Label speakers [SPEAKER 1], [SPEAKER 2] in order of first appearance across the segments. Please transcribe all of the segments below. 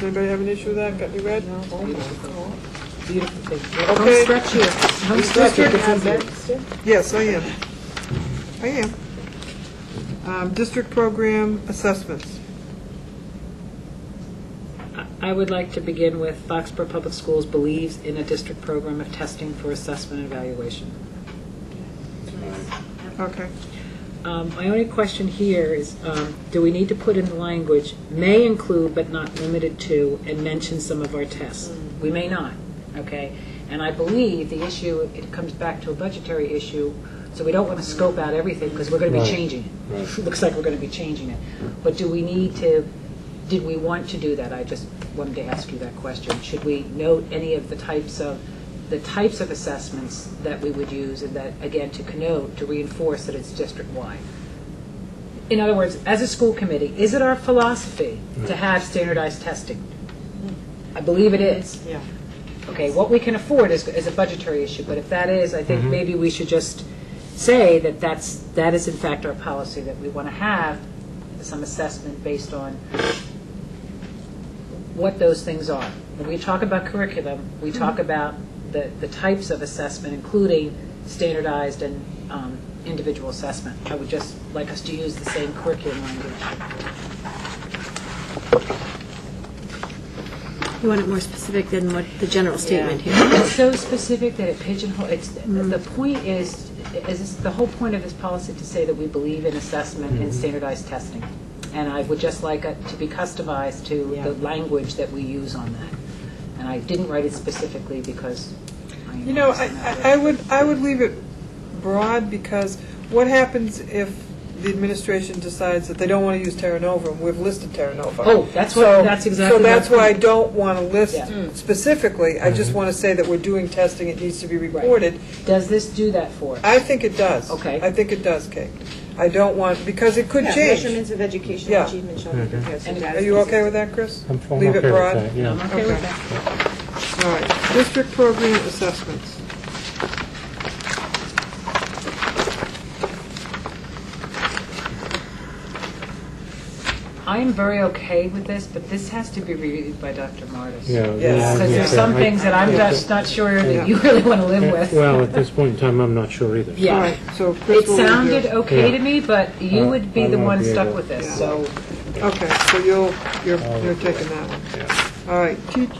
[SPEAKER 1] Anybody have an issue with that? Got you read?
[SPEAKER 2] Beautiful picture.
[SPEAKER 1] Okay.
[SPEAKER 2] Don't stretch it. Don't stretch
[SPEAKER 1] District-
[SPEAKER 2] it. This is it.
[SPEAKER 1] Yes, I am. I am. Um, District program assessments.
[SPEAKER 2] I would like to begin with Foxborough Public Schools believes in a district program of testing for assessment and evaluation.
[SPEAKER 1] Okay.
[SPEAKER 2] Um, My only question here is, um, do we need to put in the language, may include but not limited to, and mention some of our tests? We may not, okay? And I believe the issue, it comes back to a budgetary issue, so we don't want to scope out everything, because we're going to be
[SPEAKER 3] Right.
[SPEAKER 2] changing it.
[SPEAKER 3] Right.
[SPEAKER 2] Looks like we're going to be changing it. But do we need to, did we want to do that? I just wanted to ask you that question. Should we note any of the types of, the types of assessments that we would use, and that, again, to connote, to reinforce that it's district-wide? In other words, as a school committee, is it our philosophy to have standardized testing? I believe it is.
[SPEAKER 1] Yeah.
[SPEAKER 2] Okay, what we can afford is, is a budgetary issue, but if that is, I think maybe we should just say that that's, that is in fact our policy, that we want to have some assessment based on what those things are. When we talk about curriculum, we talk about the, the types of assessment, including standardized and um, individual assessment. I would just like us to use the same curriculum language.
[SPEAKER 4] You want it more specific than what the general statement here. Mm.
[SPEAKER 2] It's so specific that it pigeonholes, it's, the point is, is this- the whole point of this policy to say that we believe in assessment
[SPEAKER 4] Mm-hmm.
[SPEAKER 2] and standardized testing. And I would just like it to be customized to the language that we use on that. And I didn't write it specifically because I.
[SPEAKER 1] You know, I,
[SPEAKER 2] am not-
[SPEAKER 1] I- I would, I would leave it broad because what happens if the administration decides that they don't want to use Terra Nova? and We've listed Terra Nova.
[SPEAKER 2] Oh, that's what-
[SPEAKER 1] So-
[SPEAKER 2] that's exactly
[SPEAKER 1] So that's
[SPEAKER 2] my
[SPEAKER 1] why I
[SPEAKER 2] point.
[SPEAKER 1] don't want to list
[SPEAKER 2] Yeah. Mm. Mm-hmm.
[SPEAKER 1] specifically. I just want to say that we're doing testing, it needs to be reported.
[SPEAKER 2] Does this do that for us?
[SPEAKER 1] I think it does.
[SPEAKER 2] Okay.
[SPEAKER 1] I think it does, Kate. I don't want, because it could
[SPEAKER 5] Yeah,
[SPEAKER 1] change.
[SPEAKER 5] Measurements of educational
[SPEAKER 1] Yeah.
[SPEAKER 5] achievement shall be compared to
[SPEAKER 2] And
[SPEAKER 5] data.
[SPEAKER 1] Are you okay with that, Chris?
[SPEAKER 3] I'm I'm
[SPEAKER 1] Leave
[SPEAKER 3] okay
[SPEAKER 1] it
[SPEAKER 3] with
[SPEAKER 1] broad.
[SPEAKER 3] that,
[SPEAKER 2] I'm
[SPEAKER 3] yeah.
[SPEAKER 2] okay with
[SPEAKER 1] Okay.
[SPEAKER 2] that.
[SPEAKER 1] All right, district program assessments.
[SPEAKER 2] I am very okay with this, but this has to be reviewed by Dr. Martis.
[SPEAKER 3] Yeah.
[SPEAKER 1] Yes.
[SPEAKER 2] Because there's some things that I'm just not sure that you really want to live with.
[SPEAKER 3] Well, at this point in time, I'm not sure either.
[SPEAKER 2] Yeah.
[SPEAKER 1] All right, so Chris
[SPEAKER 2] It
[SPEAKER 1] will review.
[SPEAKER 2] sounded okay to me, but you
[SPEAKER 3] Uh,
[SPEAKER 2] would be
[SPEAKER 3] I
[SPEAKER 2] the
[SPEAKER 3] won't
[SPEAKER 2] one
[SPEAKER 3] be
[SPEAKER 2] stuck
[SPEAKER 3] able-
[SPEAKER 2] with
[SPEAKER 1] Yeah.
[SPEAKER 2] this, so
[SPEAKER 1] Okay, so you'll, you're,
[SPEAKER 3] Oh,
[SPEAKER 1] you're taking that one.
[SPEAKER 3] Yeah.
[SPEAKER 1] All right, teach,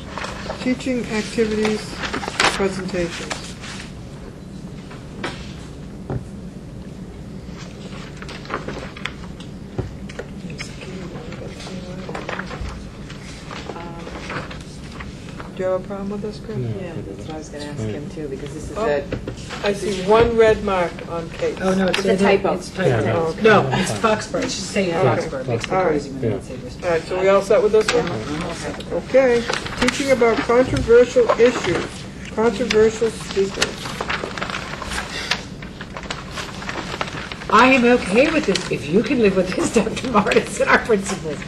[SPEAKER 1] teaching activities, presentations. Do you have a problem with this, Chris?
[SPEAKER 3] No.
[SPEAKER 5] Yeah, that's what I was going to ask him too, because this is
[SPEAKER 1] Oh.
[SPEAKER 5] a,
[SPEAKER 1] I see one red mark on Kate's.
[SPEAKER 2] Oh, no, it's.
[SPEAKER 5] It's a typo.
[SPEAKER 2] It's
[SPEAKER 3] Yeah,
[SPEAKER 2] typo.
[SPEAKER 1] okay.
[SPEAKER 2] No, it's Foxborough, it's just saying
[SPEAKER 1] Okay.
[SPEAKER 2] Foxborough, It makes me
[SPEAKER 1] All right.
[SPEAKER 2] crazy when
[SPEAKER 3] Yeah.
[SPEAKER 2] they say this.
[SPEAKER 1] All right, so we all set with this one?
[SPEAKER 2] I'm all set.
[SPEAKER 1] Okay, teaching about controversial issues, controversial speakers.
[SPEAKER 2] I am okay with this, if you can live with this, Dr. Martis and our principals.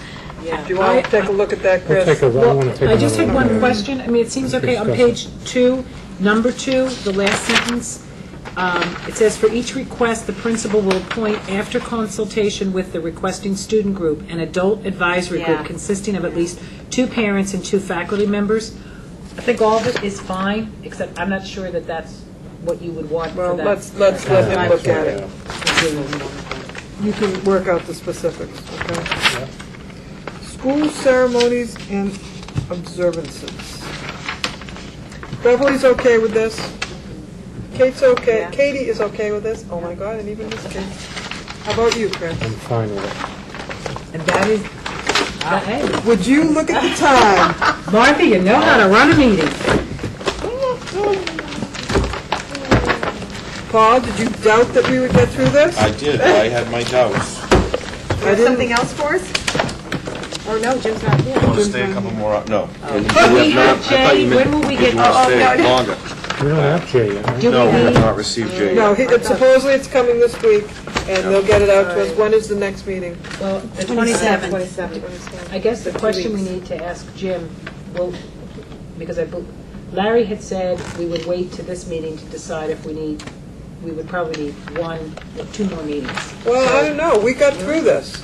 [SPEAKER 1] Do you want to take a look at that,
[SPEAKER 3] I'll
[SPEAKER 1] Chris?
[SPEAKER 3] take a, I want to take
[SPEAKER 2] I just
[SPEAKER 3] another
[SPEAKER 2] had
[SPEAKER 3] look at
[SPEAKER 2] one
[SPEAKER 3] it.
[SPEAKER 2] question, I mean, it seems okay, on page two, number two, the last sentence, um, it says, "For each request, the principal will appoint, after consultation with the requesting student group, an adult advisory group
[SPEAKER 5] Yeah.
[SPEAKER 2] consisting of at least two parents and two faculty members." I think all of it is fine, except I'm not sure that that's what you would want
[SPEAKER 1] Well,
[SPEAKER 2] for that.
[SPEAKER 1] let's, let's let him look at it. You can work out the specifics, okay? School ceremonies and observances. Beverly's okay with this. Kate's okay,
[SPEAKER 5] Yeah.
[SPEAKER 1] Katie is okay with this. Oh my God, and even this kid. How about you, Chris?
[SPEAKER 3] I'm fine with
[SPEAKER 2] And that is, that- hey,
[SPEAKER 1] Would you look at the time?
[SPEAKER 2] Martha, you know how to run a meeting.
[SPEAKER 1] Paul, did you doubt that we would get through this?
[SPEAKER 6] I did, I had my doubts.
[SPEAKER 5] you have something else for us? Or no, Jim's not here.
[SPEAKER 6] Want to stay a couple more, hou- no.
[SPEAKER 2] We have Jay, when will we get?
[SPEAKER 6] Want to stay longer?
[SPEAKER 3] it. We don't have Jay yet, right?
[SPEAKER 2] Do we
[SPEAKER 6] No, we have
[SPEAKER 2] need-
[SPEAKER 6] not received Jay yet.
[SPEAKER 1] No, he- it's- supposedly it's coming this week, and they'll get it out to us. When is the next meeting?
[SPEAKER 2] Well, the 27th,
[SPEAKER 5] Twenty-seven.
[SPEAKER 2] I guess the question we need to ask Jim, well, because I, bel- Larry had said we would wait to this meeting to decide if we need, we would probably need one, or two more meetings.
[SPEAKER 1] Well, I don't know, we got through this.